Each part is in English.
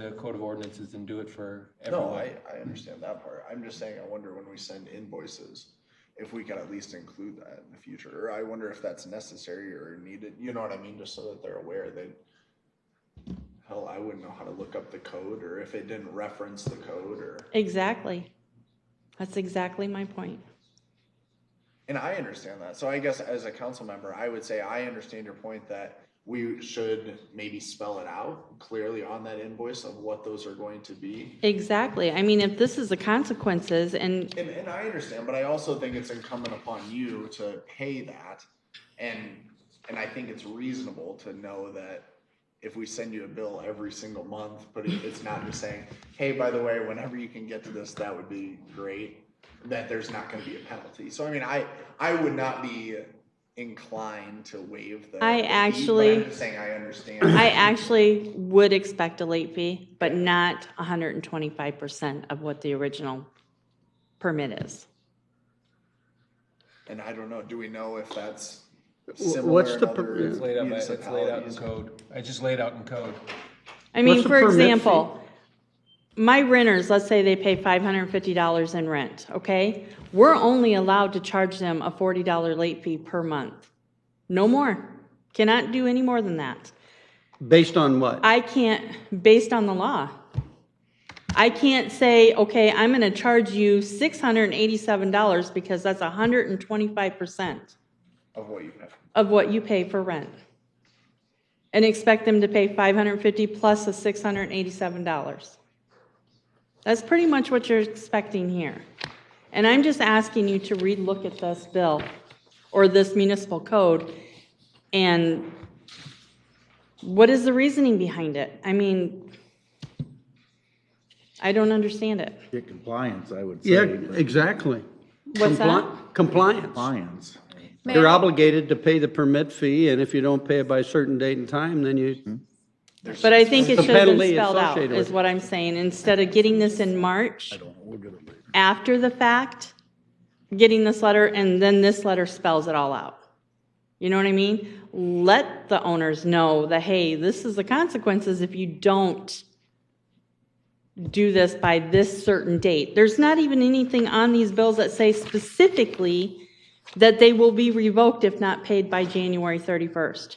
the code of ordinances and do it for No, everyone. I, I understand that part. I'm just saying, I wonder when we send invoices, if we could at least include that in the future, or I wonder if that's necessary or needed, you know what I mean, just so that they're aware that. Hell, I wouldn't know how to look up the code, or if it didn't reference the code, or, Exactly. That's exactly my point. and I understand that, so I guess as a council member, I would say I understand your point that. We should maybe spell it out clearly on that invoice of what those are going to be. Exactly. I mean, if this is the consequences and And, and I understand, but I also think it's incumbent upon you to pay that. And, and I think it's reasonable to know that if we send you a bill every single month, but it- it's not just saying, hey, by the way, whenever you can get to this, that would be great, that there's not gonna be a penalty. So I mean, I, I would not be inclined to waive the. the I fee, but I'm actually- just Saying I understand. I actually would expect a late fee, but not 125% of what the original permit is. And I don't know, do we know if that's Wh- similar what's in the per- other yeah. It's laid out, by- it's laid out in municipalities? code. I just laid out in code. I mean, What's the for permit fee? example, my renters, let's say they pay $550 in rent, okay? We're only allowed to charge them a $40 late fee per month. No more. Cannot do any more than that. Based on what? I can't, based on the law. I can't say, okay, I'm going to charge you $687 because that's 125% Of what you have. of what you pay for rent. And expect them to pay 550 plus the $687. That's pretty much what you're expecting here. And I'm just asking you to relook at this bill or this municipal code and what is the reasoning behind it? I mean, I don't understand it. Get compliance, I would say. Yeah, but exactly. What's that? Compli- Compliance. Compliance. You're obligated to pay the permit fee, and if you don't pay it by a certain date and time, then you, But I think it The should have been penalty spelled out, associated is with it. what I'm saying. Instead of getting this in March, after the fact, getting this letter, and then this letter spells it all out. You know what I mean? Let the owners know that, hey, this is the consequences if you don't do this by this certain date. There's not even anything on these bills that say specifically that they will be revoked if not paid by January 31st.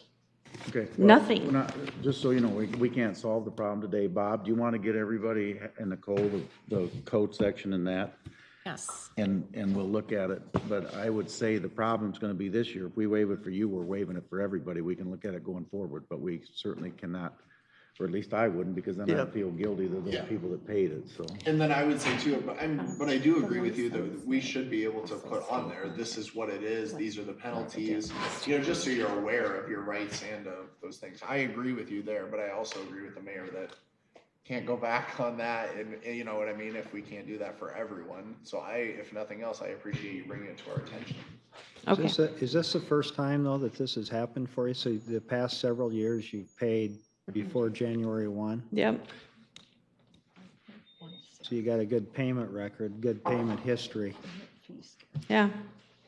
Okay. well, Nothing. we're not- Just so you know, we, we can't solve the problem today. Bob, do you want to get everybody in the code, of- the code section and that? Yes. And, and we'll look at it. But I would say the problem's going to be this year. If we waive it for you, we're waiving it for everybody. We can look at it going forward, but we certainly cannot, or at least I wouldn't, because then Yeah. I'd feel guilty to those Yeah. people that paid it, so. And then I would say too, but I'm, but I do agree with you that we should be able to put on there, this is what it is, these are the penalties. You know, just so you're aware of your rights and of those things. I agree with you there, but I also agree with the mayor that can't go back on that and, and you know what I mean, if we can't do that for everyone. So I, if nothing else, I appreciate you bringing it to our attention. Okay. Is this- Is this the first time, though, that this has happened for you? So the past several years, you've paid before January 1? Yep. So you got a good payment record, good payment history. Yeah.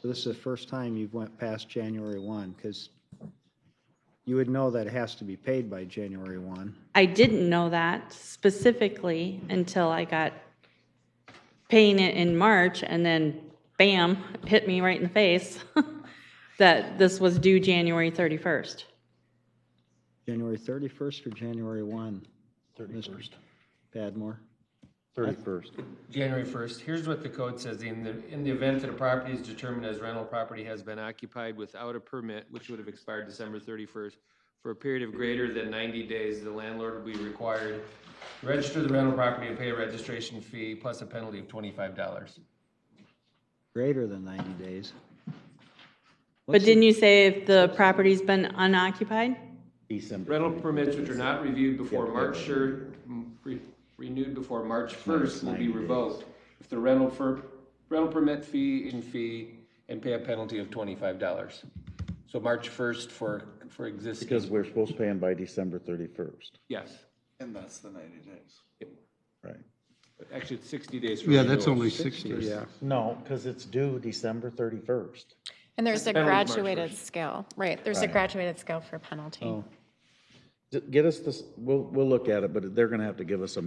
So This is the first time you've went past January 1, because you would know that it has to be paid by January 1. I didn't know that specifically until I got paying it in March and then bam, it hit me right in the face that this was due January 31st. January 31st or January 1? 31st. Padmore? Thirty-first. January 1st, here's what the code says. In the, in the event that a property is determined as rental property has been occupied without a permit, which would have expired December 31st, for a period of greater than 90 days, the landlord will be required to register the rental property and pay a registration fee plus a penalty of $25. Greater than 90 days. But didn't you say if the property's been unoccupied? December. Rental permits which are not reviewed before Yeah, March, yeah. sure, m- re- renewed before March first will be 90 days. revoked. If the rental for, rental permit fee and fee and pay a penalty of twenty-five dollars. So March first for, for existing, Because we're supposed to pay them by December thirty-first, yes. And that's the ninety days. right? Actually, it's sixty days for yeah, that's only renewals. 60, yeah. No, because it's due December thirty-first. And there's a Penalty March graduated first. scale, right, there's a Right. graduated scale for penalty. Oh. Get us this, we'll, we'll look at it, but they're gonna have to give us a